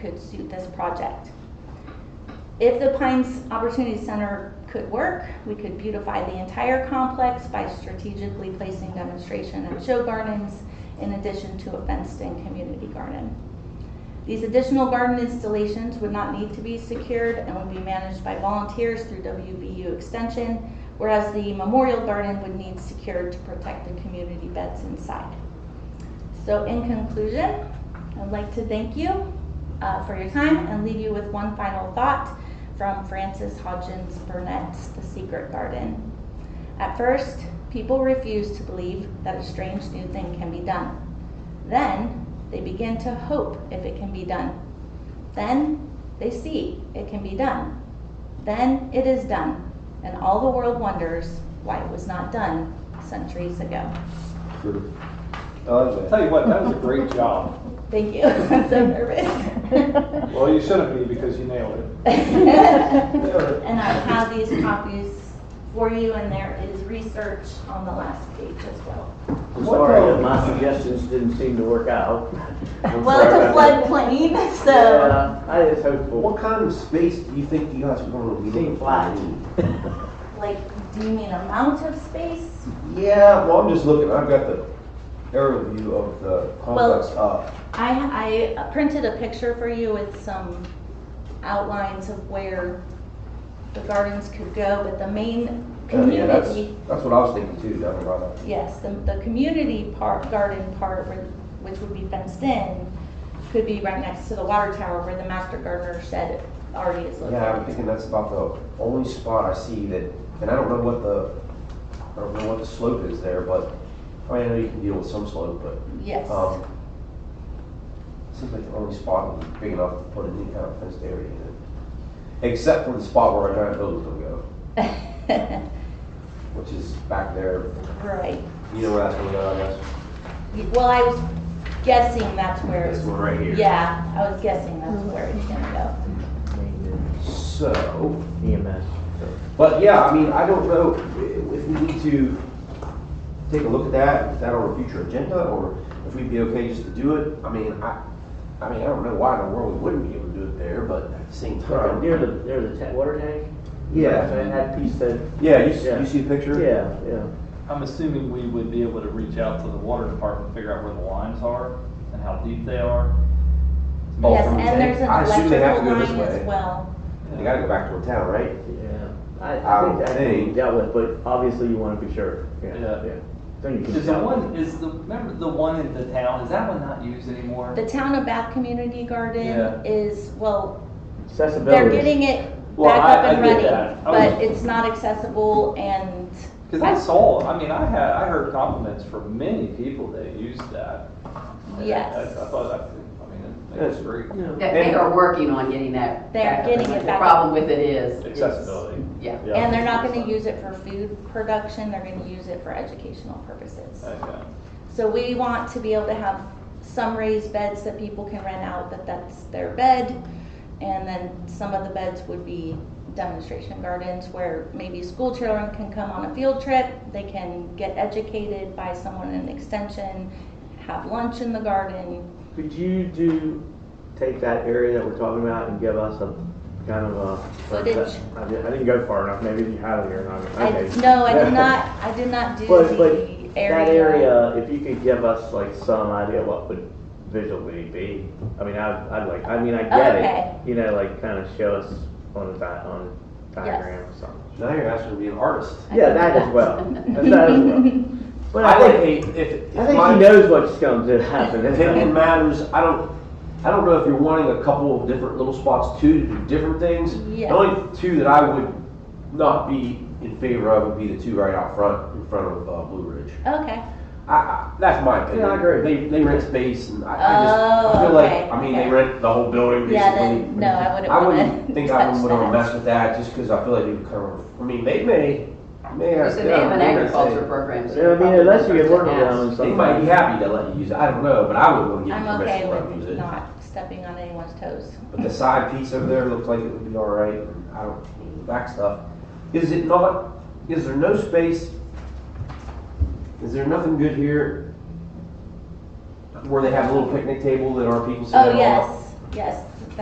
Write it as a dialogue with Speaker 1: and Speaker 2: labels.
Speaker 1: could suit this project. If the Pines Opportunity Center could work, we could beautify the entire complex by strategically placing demonstration and show gardens in addition to a fenced-in community garden. These additional garden installations would not need to be secured and would be managed by volunteers through WBU Extension, whereas the Memorial Garden would need secured to protect the community beds inside. So in conclusion, I'd like to thank you uh, for your time and leave you with one final thought from Frances Hodgins Burnett's The Secret Garden. At first, people refuse to believe that a strange new thing can be done. Then they begin to hope if it can be done. Then they see it can be done. Then it is done, and all the world wonders why it was not done centuries ago.
Speaker 2: Sure. Uh, tell you what, that was a great job.
Speaker 1: Thank you. I'm so nervous.
Speaker 2: Well, you shouldn't be because you nailed it.
Speaker 1: And I have these copies for you, and there is research on the last page as well.
Speaker 3: I'm sorry that my suggestions didn't seem to work out. I'm
Speaker 1: Well, it's a
Speaker 3: sorry about
Speaker 1: floodplain,
Speaker 3: that.
Speaker 1: so
Speaker 3: Yeah, uh, I just hopeful.
Speaker 4: What kind of space do you think you guys are gonna be?
Speaker 3: Seemed flat.
Speaker 1: like, do you mean amount of space?
Speaker 4: Yeah, well, I'm just looking, I've got the aerial view of the complex up.
Speaker 1: I, I printed a picture for you with some outlines of where the gardens could go, but the main
Speaker 4: Uh, yeah, that's,
Speaker 1: community,
Speaker 4: that's what I was thinking too, down around that.
Speaker 1: yes, the, the community part, garden part, where- which would be fenced in, could be right next to the water tower where the master gardener shed already is located.
Speaker 4: Yeah, I'm thinking that's about the only spot I see that, and I don't know what the, I don't know what the slope is there, but, I mean, I know you can deal with some slope, but,
Speaker 1: Yes.
Speaker 4: um, seems like the only spot would be big enough to put any kind of fenced area in it. Except for the spot where our giant building's gonna go,
Speaker 1: right.
Speaker 4: which is back there, you know where that's gonna go, I guess.
Speaker 1: Well, I was guessing that's where.
Speaker 4: This one right here.
Speaker 1: Yeah, I was guessing that's where it's gonna
Speaker 4: So,
Speaker 3: EMS.
Speaker 4: but yeah, I mean, I don't know i- if we need to take a look at that, is that on a future agenda, or if we'd be okay just to do it? I mean, I, I mean, I don't know why in the world we wouldn't be able to do it there, but at the same time.
Speaker 3: Near the, near the ta- water tank?
Speaker 4: Yeah,
Speaker 3: And that piece that,
Speaker 4: yeah, you, s-
Speaker 3: Yeah.
Speaker 4: you see the picture?
Speaker 3: yeah, yeah.
Speaker 5: I'm assuming we would be able to reach out to the water department, figure out where the lines are and how deep they are.
Speaker 1: go.
Speaker 4: Oh,
Speaker 1: Yes,
Speaker 4: from the
Speaker 1: and there's an
Speaker 4: I assume they have to
Speaker 1: electrical
Speaker 4: go this
Speaker 1: line
Speaker 4: way.
Speaker 1: as well.
Speaker 4: They gotta go back to the town, right?
Speaker 3: Yeah. I,
Speaker 4: I
Speaker 3: I
Speaker 4: would
Speaker 3: think that can be
Speaker 4: think-
Speaker 3: dealt with, but obviously you want to be sure.
Speaker 5: Yeah.
Speaker 3: Then you can.
Speaker 5: Is the
Speaker 3: tell.
Speaker 5: one, is the, remember the one in the town, is that one not used anymore?
Speaker 1: The town of Bath Community Garden
Speaker 5: Yeah.
Speaker 1: is, well, they're
Speaker 3: Accessibility.
Speaker 1: getting it
Speaker 5: Well,
Speaker 1: back
Speaker 5: I-
Speaker 1: up and
Speaker 5: I get
Speaker 1: ready,
Speaker 5: that. I
Speaker 1: but
Speaker 5: was-
Speaker 1: it's not accessible and.
Speaker 5: Cause I saw, I mean, I had, I heard compliments from many people that used that. And I-
Speaker 1: Yes.
Speaker 5: I I thought, I, I mean, that's great.
Speaker 3: Yeah.
Speaker 6: That They are working on getting that.
Speaker 1: They're
Speaker 6: back up.
Speaker 1: getting it
Speaker 6: The
Speaker 1: back
Speaker 6: problem with it is. is-
Speaker 5: Accessibility.
Speaker 6: Yeah.
Speaker 5: Yeah.
Speaker 1: And they're not gonna use it for food production, they're gonna use it for educational purposes.
Speaker 5: Okay.
Speaker 1: So we want to be able to have some raised beds that people can rent out, that that's their bed. And then some of the beds would be demonstration gardens where maybe school children can come on a field trip. They can get educated by someone in extension, have lunch in the garden.
Speaker 3: Could you do, take that area that we're talking about and give us a kind of a.
Speaker 1: Footage.
Speaker 3: I didn't, I didn't go far enough, maybe you had it here, and
Speaker 1: I,
Speaker 3: I'm, okay.
Speaker 1: no, I did not, I did not do
Speaker 3: But, but
Speaker 1: the
Speaker 3: that area, if you could give us like some idea what would visually be, I mean, I'd, I'd like, I mean, I
Speaker 1: Okay.
Speaker 3: get it. You know, like kind of show us on a di- on a diagram or something.
Speaker 4: Now you're asking to be an artist.
Speaker 3: Yeah, that as well, that as well. But
Speaker 4: I
Speaker 3: I think,
Speaker 4: think, if, if
Speaker 3: I think
Speaker 4: my
Speaker 3: she knows what's going to happen.
Speaker 4: opinion matters, I don't, I don't know if you're wanting a couple of different little spots too, to do different things.
Speaker 1: Yeah.
Speaker 4: The only two that I would not be in favor of would be the two right out front, in front of uh, Blue Ridge.
Speaker 1: Okay,
Speaker 4: I, I, that's my opinion.
Speaker 3: Yeah, I agree.
Speaker 4: They, they rent space and I, I just, I
Speaker 1: Oh,
Speaker 4: feel like,
Speaker 1: okay,
Speaker 4: I mean,
Speaker 1: okay.
Speaker 4: they rent the whole building
Speaker 1: yeah,
Speaker 4: basically.
Speaker 1: then, no, I wouldn't
Speaker 4: I
Speaker 1: wanna
Speaker 4: wouldn't think I
Speaker 1: touch
Speaker 4: would wanna
Speaker 1: that.
Speaker 4: mess with that, just cause I feel like it would kind of, I mean, they may, may have.
Speaker 6: Because they have an
Speaker 4: they may
Speaker 6: agriculture
Speaker 4: say-
Speaker 6: program. so
Speaker 3: Yeah, I mean,
Speaker 6: probably
Speaker 3: unless you get
Speaker 6: there's
Speaker 3: work
Speaker 6: an
Speaker 3: around
Speaker 6: ask.
Speaker 4: They might be
Speaker 3: something.
Speaker 4: happy to let you use it, I don't know, but I would wanna give you
Speaker 1: I'm okay
Speaker 4: permission to let them use
Speaker 1: with
Speaker 4: it.
Speaker 1: not stepping on anyone's toes.
Speaker 4: But the side piece over there looks like it would be all right, and I don't, need the back stuff. Is it not, is there no space? Is there nothing good here? Where they have a little picnic table that our people sit
Speaker 1: Oh,
Speaker 4: down on?
Speaker 1: yes, yes,